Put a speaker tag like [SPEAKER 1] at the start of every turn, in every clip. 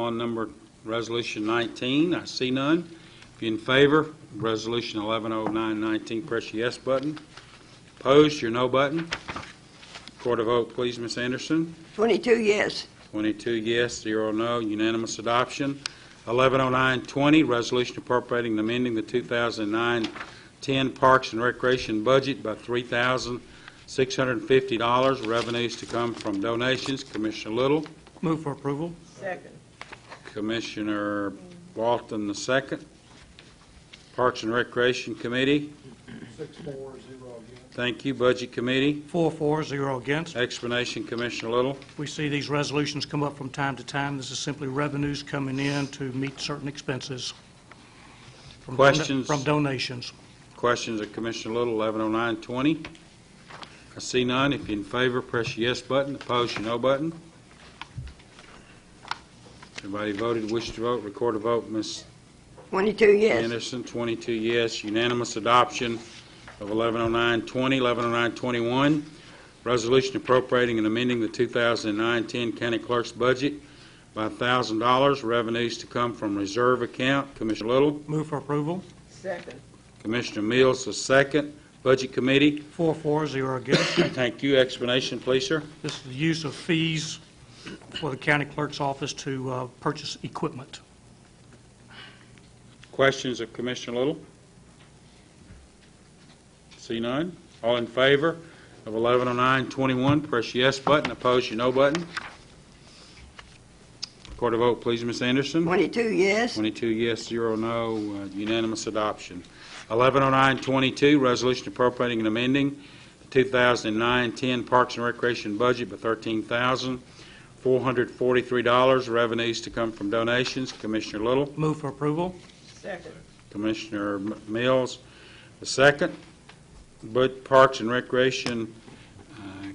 [SPEAKER 1] on number, Resolution 19? I see none. If you're in favor, Resolution 110919, press your yes button. Opposed, your no button. Record a vote, please, Ms. Anderson.
[SPEAKER 2] 22 yes,
[SPEAKER 1] 22 yes, 0 no, unanimous adoption. 110920, resolution appropriating and amending the 2009-10 Parks and Recreation budget by $3,650, revenues to come from donations. Commissioner Little,
[SPEAKER 3] Move for approval.
[SPEAKER 1] Commissioner Walton the second. Parks and Recreation Committee,
[SPEAKER 4] Six, four, zero against.
[SPEAKER 1] thank you. Budget Committee,
[SPEAKER 3] Four for, zero against.
[SPEAKER 1] explanation, Commissioner Little.
[SPEAKER 3] We see these resolutions come up from time to time. This is simply revenues coming in to meet certain expenses. from don-
[SPEAKER 1] Questions?
[SPEAKER 3] From donations.
[SPEAKER 1] Questions of Commissioner Little, 110920. I see none. If you're in favor, press your yes button. Opposed, your no button. Everybody voted, wish to vote, record a vote. Ms.
[SPEAKER 2] 22 yes,
[SPEAKER 1] Anderson, 22 yes, unanimous adoption of 110920. 110921, resolution appropriating and amending the 2009-10 county clerk's budget by $1,000, revenues to come from reserve account. Commissioner Little,
[SPEAKER 3] Move for approval.
[SPEAKER 1] Commissioner Mills, the second. Budget Committee,
[SPEAKER 3] Four for, zero against.
[SPEAKER 1] Thank you. Explanation, please, sir.
[SPEAKER 3] This is the use of fees for the county clerk's office to uh, purchase equipment.
[SPEAKER 1] Questions of Commissioner Little? See none? All in favor of 110921, press yes button. Oppose your no button. Record a vote, please, Ms. Anderson.
[SPEAKER 2] 22 yes,
[SPEAKER 1] 22 yes, 0 no, uh, unanimous adoption. 110922, resolution appropriating and amending the 2009-10 Parks and Recreation budget by $13,443, revenues to come from donations. Commissioner Little?
[SPEAKER 3] Move for approval.
[SPEAKER 1] Commissioner M- Mills, the second. But Parks and Recreation uh,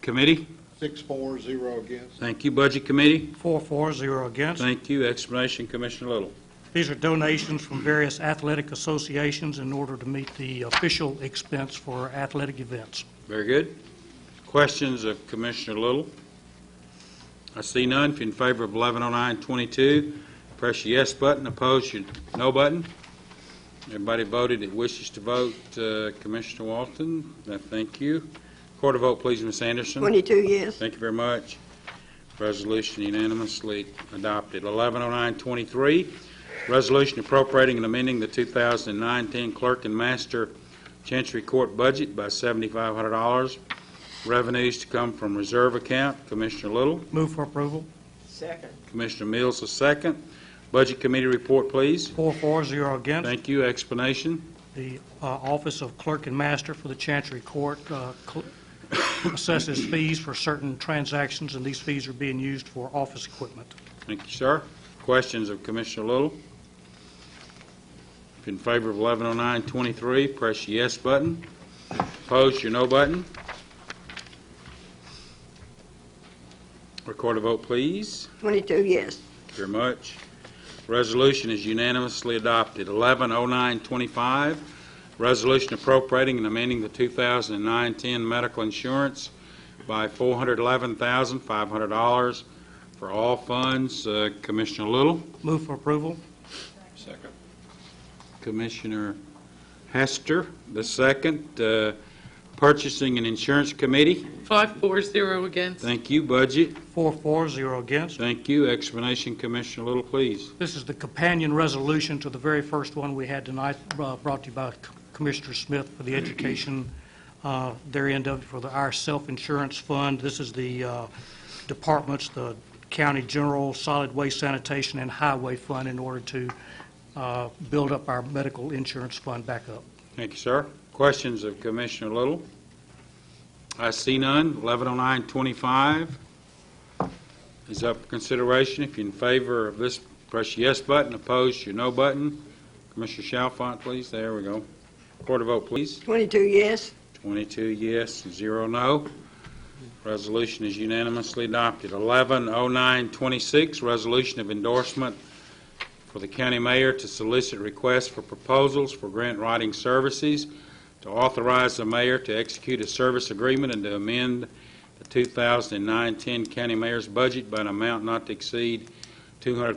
[SPEAKER 1] Committee,
[SPEAKER 4] Six, four, zero against.
[SPEAKER 1] thank you. Budget Committee,
[SPEAKER 3] Four for, zero against.
[SPEAKER 1] thank you. Explanation, Commissioner Little.
[SPEAKER 3] These are donations from various athletic associations in order to meet the official expense for athletic events.
[SPEAKER 1] Very good. Questions of Commissioner Little? I see none. If you're in favor of 110922, press your yes button. Opposed, your no button. Everybody voted that wishes to vote. Uh, Commissioner Walton, uh, thank you. Record a vote, please, Ms. Anderson.
[SPEAKER 2] 22 yes,
[SPEAKER 1] Thank you very much. Resolution unanimously adopted. 110923, resolution appropriating and amending the 2009-10 clerk and master chancery court budget by $7,500. Revenues to come from reserve account. Commissioner Little,
[SPEAKER 3] Move for approval.
[SPEAKER 1] Commissioner Mills the second. Budget Committee report, please.
[SPEAKER 3] Four for, zero against.
[SPEAKER 1] Thank you. Explanation.
[SPEAKER 3] The uh, Office of Clerk and Master for the Chancery Court uh, cl- assesses fees for certain transactions, and these fees are being used for office equipment.
[SPEAKER 1] Thank you, sir. Questions of Commissioner Little? If in favor of 110923, press your yes button. Opposed, your no button. Record a vote, please.
[SPEAKER 2] 22 yes,
[SPEAKER 1] Thank you very much. Resolution is unanimously adopted. 110925, resolution appropriating and amending the 2009-10 medical insurance by $411,500 for all funds. Uh, Commissioner Little?
[SPEAKER 3] Move for approval.
[SPEAKER 4] Second.
[SPEAKER 1] Commissioner Hester, the second. Uh, Purchasing and Insurance Committee,
[SPEAKER 5] Five, four, zero against.
[SPEAKER 1] thank you. Budget,
[SPEAKER 3] Four for, zero against.
[SPEAKER 1] thank you. Explanation, Commissioner Little, please.
[SPEAKER 3] This is the companion resolution to the very first one we had tonight, uh, brought to you by Commissioner Smith for the education, uh, their end of, for the, our self-insurance fund. This is the uh, departments, the county general, solid waste sanitation, and highway fund in order to uh, build up our medical insurance fund back up.
[SPEAKER 1] Thank you, sir. Questions of Commissioner Little? I see none. 110925 is up for consideration. If you're in favor of this, press your yes button. Opposed, your no button. Commissioner Chalfont, please. There we go. Quarter vote, please.
[SPEAKER 2] 22 yes,
[SPEAKER 1] 22 yes, zero no. Resolution is unanimously adopted. 110926, resolution of endorsement for the county mayor to solicit requests for proposals for grant writing services, to authorize the mayor to execute a service agreement and to amend the 2009-10 county mayor's budget by an amount not to exceed two hundred